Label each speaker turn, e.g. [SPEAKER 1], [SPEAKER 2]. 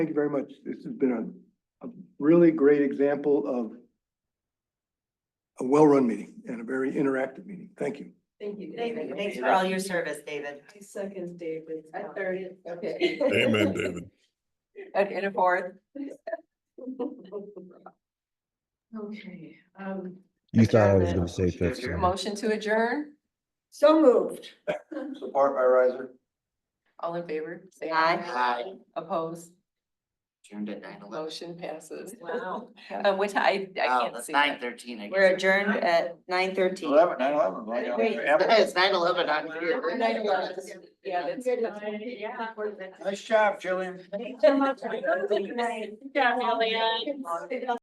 [SPEAKER 1] Thank you very much. This has been a, a really great example of a well-run meeting and a very interactive meeting. Thank you.
[SPEAKER 2] Thank you.
[SPEAKER 3] Thank you. Thanks for all your service, David.
[SPEAKER 2] I second David.
[SPEAKER 3] I
[SPEAKER 2] third it.
[SPEAKER 3] Okay.
[SPEAKER 4] Amen, David.
[SPEAKER 3] And in a fourth.
[SPEAKER 2] Okay, um,
[SPEAKER 5] You thought I was
[SPEAKER 2] Adjournment.
[SPEAKER 5] gonna say fifth. sorry.
[SPEAKER 3] Motion to adjourn,
[SPEAKER 2] so moved.
[SPEAKER 1] Support by riser.
[SPEAKER 3] all in favor? Say
[SPEAKER 6] Aye.
[SPEAKER 3] Opposed,
[SPEAKER 6] Turned at nine eleven. Oh,
[SPEAKER 3] motion passes.
[SPEAKER 2] Wow.
[SPEAKER 3] Uh, which I, I can't see.
[SPEAKER 6] Nine
[SPEAKER 3] that.
[SPEAKER 6] thirteen, I guess.
[SPEAKER 3] We're adjourned at nine thirteen.
[SPEAKER 7] Eleven, nine eleven, right?
[SPEAKER 3] Wait.
[SPEAKER 6] It's nine eleven on here.
[SPEAKER 3] Nine eleven, yeah, that's.
[SPEAKER 2] Yeah.
[SPEAKER 7] Nice job, Jillian.
[SPEAKER 2] Thanks so much. Good night.
[SPEAKER 3] Elliot.